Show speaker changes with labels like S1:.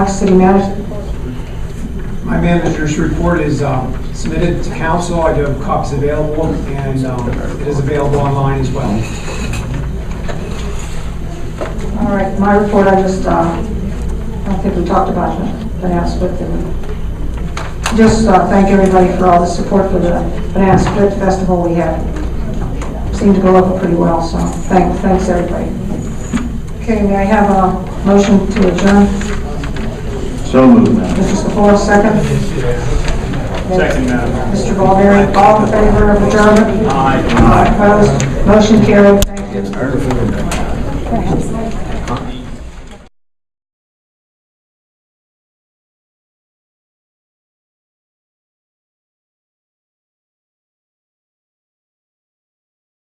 S1: City manager,
S2: My manager's report is um, submitted to council. I do have copies available, and um, it is available online as well.
S1: all right, my report, I just, uh, I don't think we talked about the finance split. did we? Just uh, thank everybody for all the support for the finance split festival we had. Seemed to go over pretty well, so thank- thanks, everybody. Okay, may I have a motion to adjourn?
S3: So moved, Madam.
S1: Mr. Sephora, second? Second, Mr. Ballberry, all in favor of adjournment? Aye. Opposed? Motion carried, thank you.